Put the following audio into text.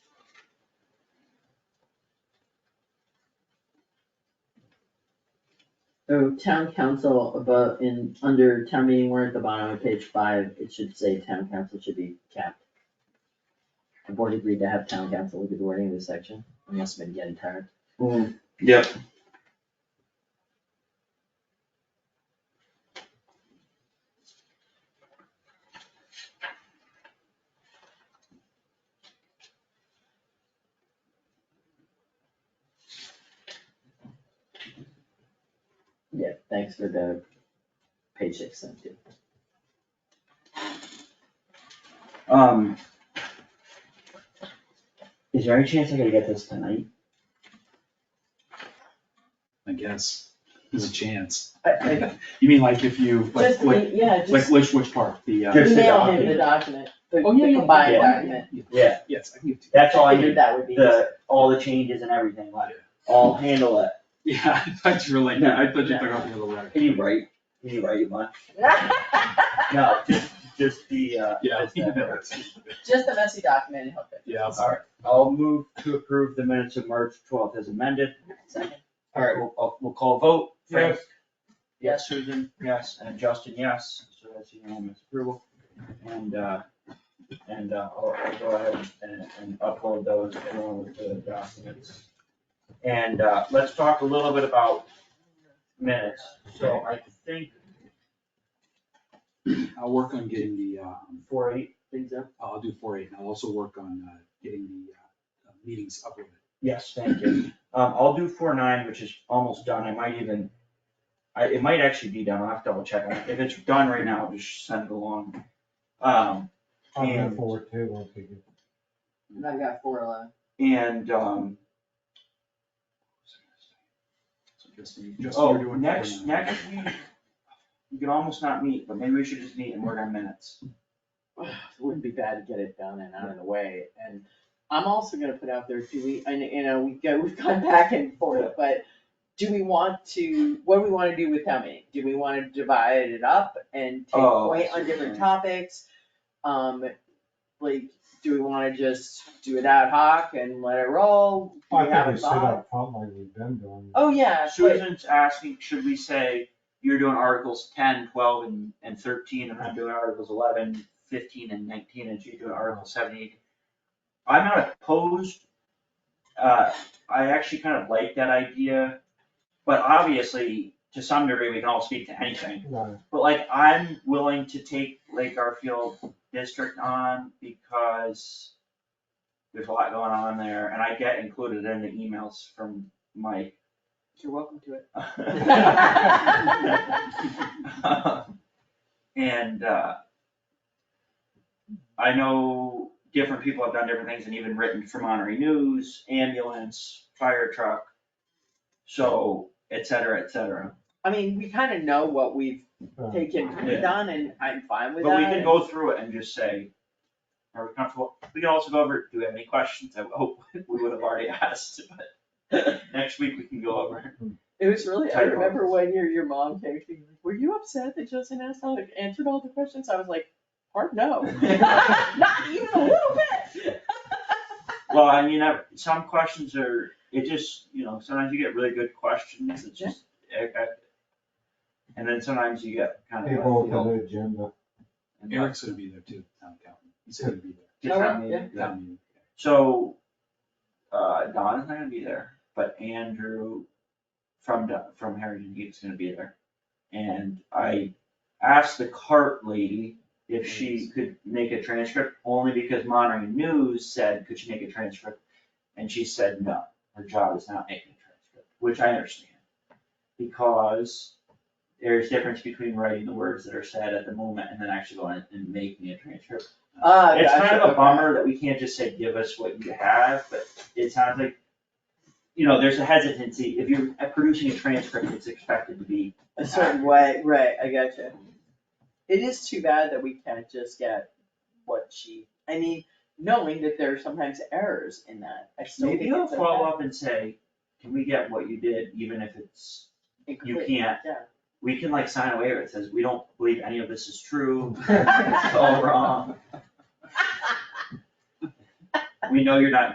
or town council above in, under town meeting warrant, at the bottom of page five, it should say town council should be capped. The board agreed to have town council look at the wording of this section, I must have been getting tired. Yep. Yeah, thanks for the page six sent to. Um. Is there any chance I could get this tonight? I guess, there's a chance. I, I, You mean like if you, like, just, e, like, yeah, like just which, which part, the, uh? Just the email him the document. document, the Oh, yeah, the yeah, combined yeah, yeah, document. yeah, Yeah, Yes, I can get to. that's all I figured need, that would be. the, all the changes and everything, like, I'll handle it. Yeah, I thought you were like, I thought you No. took off the other letter. Can you write, can you write much? No, just, just the, uh. Yeah, I just think that. that's, Just a messy document and help it. yeah. I'll- Alright, I'll move to approve the minutes of March twelfth as amended. Second. Alright, we'll, I'll- we'll call a vote. Frank? Yes. Yes, Susan, yes, and Justin, yes, so that's unanimous approval. And, uh, and, uh, I'll I'll go ahead and, and upload those along with the documents. And, uh, let's talk a little bit about minutes, so I think I'll work on getting the, um, four eight, things up, I'll do four eight, and I'll also work on, uh, getting the, uh, uh, meetings uploaded. yes, thank you. Um, I'll do four nine, which is almost done, I might even, I, it might actually be done, I'll have to double check, if it's done right now, I'll just send it along. Um, I'm And- going forward too, once we get. And I've got four eleven. and, um, So Justin, Justin, Oh, you're doing. next, four nine. next week, we could almost not meet, but maybe we should just meet and work on minutes. It wouldn't be bad to get it done and out of the way, and I'm also gonna put out there, do we, and, you know, we go, we've gone back and forth, but do we want to, what do we wanna do with town meeting? Do we wanna divide it up and take Oh, I point see on what you're different saying. topics? Um, like, do we wanna just do it ad hoc and let it roll? Do we I have think a we sit thought? up front like we've been doing. Oh, yeah, but, Susan's asking, should we say, you're doing articles 10, 12, and, and thirteen, and I'm doing articles 11, 15, and nineteen, and she's doing article 17 I'm not opposed, uh, I actually kind of like that idea, but obviously, to some degree, we can all speak to anything. Right. But like, I'm willing to take Lake Garfield District on because there's a lot going on there and I get included in the emails from Mike. you're welcome to it. And, uh, I know different people have done different things and even written for Monterey News, ambulance, fire truck, so et cetera, et cetera. I mean, we kinda know what we've Right. taken, from Yeah. it on, and I'm fine with that. But we can and- go through it and just say, are we comfortable? We can also go over, do we have any questions? I hope we would have already asked, but next week we can go over. It was really, I Tight remember ones. one year your mom came to me, like, were you upset that Justin asked all, answered all the questions? I was like, hard no. Not even a little bit. Well, I mean, I- some questions are, it just, you know, sometimes you get really good questions, it's just, I- I- and then sometimes you get kind of. People with the agenda. like, Eric's gonna be there too, town accountant. He's gonna be there. different- Yeah. Town meeting. So, uh, Don's not gonna be there, but Andrew from, Do- from Harrington Heat's gonna be there. And I asked the cart lady if she could make a transcript, only because Monterey News said, could she make a transcript? And she said, no, her job is not making a transcript, which I understand. Because there's difference between writing the words that are said at the moment and then actually going and making a transcript. Ah, It's kind gotcha, of a okay. bummer that we can't just say, give us what you have, but it sounds like, you know, there's a hesitancy, if you're uh, producing a transcript, it's expected to be. A certain way, right, I gotcha. It is too bad that we can't just get what she, I mean, knowing that there are sometimes errors in that, I still think Maybe it's you'll okay. follow up and say, can we get what you did, even if it's, you Incomplete, can't, yeah. we can like sign a waiver that says, we don't believe any of this is true, Right. it's all wrong. We know you're not